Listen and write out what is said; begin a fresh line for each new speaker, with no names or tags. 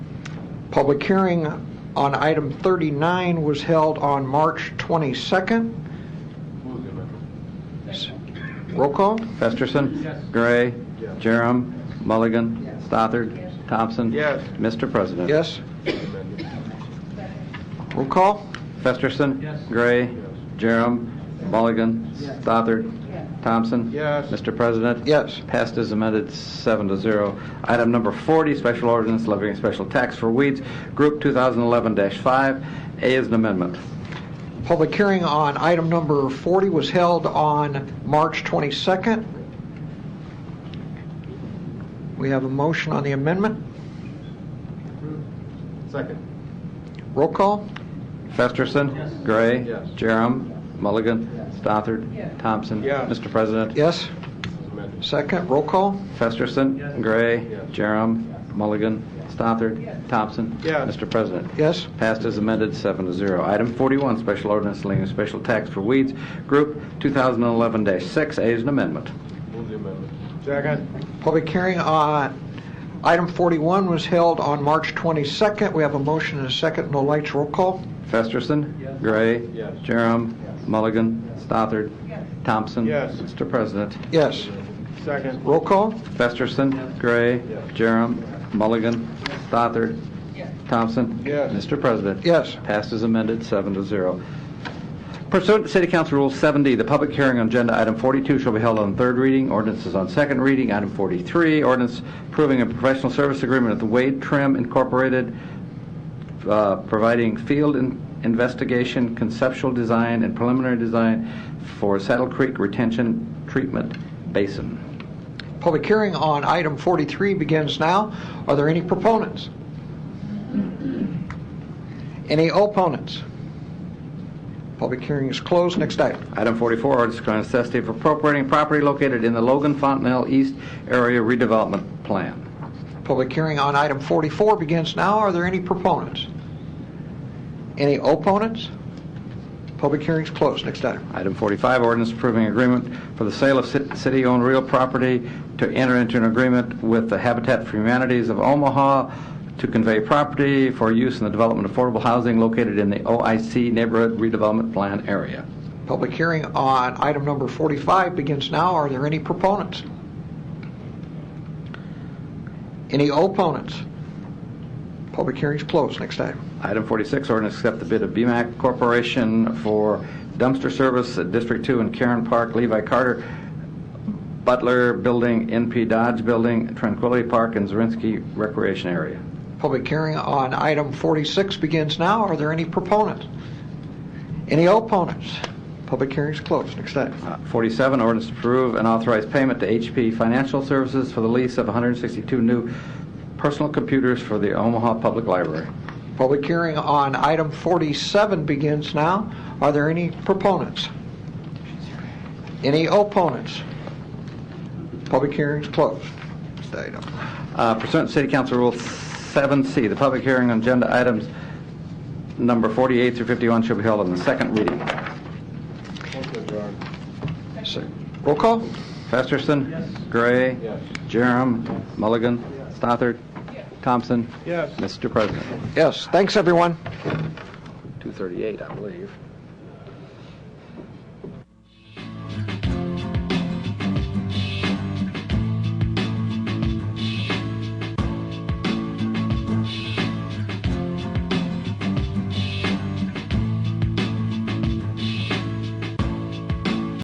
Public hearing on item 39 was held on March 22nd. Roll call?
Festerson. Gray. Jerem. Mulligan. Stothard. Thompson.
Yes.
Mr. President.
Yes? Roll call?
Festerson. Gray. Jerem. Mulligan. Stothard. Thompson.
Yes.
Mr. President.
Yes.
Passed as amended, seven to zero. Item number 40, special ordinance levying special tax for weeds, Group 2011-5. A is an amendment.
Public hearing on item number 40 was held on March 22nd. We have a motion on the amendment.
Second.
Roll call?
Festerson. Gray.
Yes.
Jerem. Mulligan. Stothard. Thompson.
Yes.
Mr. President.
Yes? Second, roll call?
Festerson. Gray.
Yes.
Jerem. Mulligan. Stothard. Thompson.
Yes.
Mr. President.
Yes?
Passed as amended, seven to zero. Item 41, special ordinance levying special tax for weeds, Group 2011-6. A is an amendment.
Move the amendment. Second.
Public hearing on item 41 was held on March 22nd. We have a motion and a second, no lights, roll call?
Festerson. Gray.
Yes.
Jerem. Mulligan. Stothard. Thompson.
Yes.
Mr. President.
Yes.
Second.
Roll call?
Festerson. Gray.
Yes.
Jerem. Mulligan. Stothard. Thompson.
Yes.
Mr. President.
Yes.
Passed as amended, seven to zero. Pursuant to City Council Rule 70, the public hearing on agenda item 42 shall be held on third reading, ordinances on second reading, item 43, ordinance approving a professional service agreement with Wade Trim Incorporated, uh, providing field in- investigation, conceptual design, and preliminary design for Saddle Creek Retention Treatment Basin.
Public hearing on item 43 begins now. Are there any proponents? Any opponents? Public hearing is closed. Next item.
Item 44, ordinance declaring necessity of appropriating property located in the Logan Fontanelle East Area Redevelopment Plan.
Public hearing on item 44 begins now. Are there any proponents? Any opponents? Public hearing is closed. Next item.
Item 45, ordinance approving agreement for the sale of ci- city-owned real property to enter into an agreement with the Habitat for Humanities of Omaha to convey property for use in the development of affordable housing located in the OIC Neighborhood Redevelopment Plan area.
Public hearing on item number 45 begins now. Are there any proponents? Any opponents? Public hearing is closed. Next item.
Item 46, ordinance accept the bid of BMAC Corporation for dumpster service at District 2 in Karen Park, Levi Carter, Butler Building, NP Dodge Building, Tranquility Park, and Zirinsky Recreation Area.
Public hearing on item 46 begins now. Are there any proponents? Any opponents? Public hearing is closed. Next item.
Uh, 47, ordinance to approve and authorize payment to HP Financial Services for the lease of 162 new personal computers for the Omaha Public Library.
Public hearing on item 47 begins now. Are there any proponents? Any opponents? Public hearing is closed. Next item.
Uh, Pursuant to City Council Rule 7C, the public hearing on agenda items number 48 through 51 shall be held on the second reading.
Motion adjourned.
So, Roll call?
Festerson. Gray.
Yes.
Jerem. Mulligan. Stothard. Thompson.
Yes.
Mr. President.
Yes. Thanks, everyone.
238, I believe.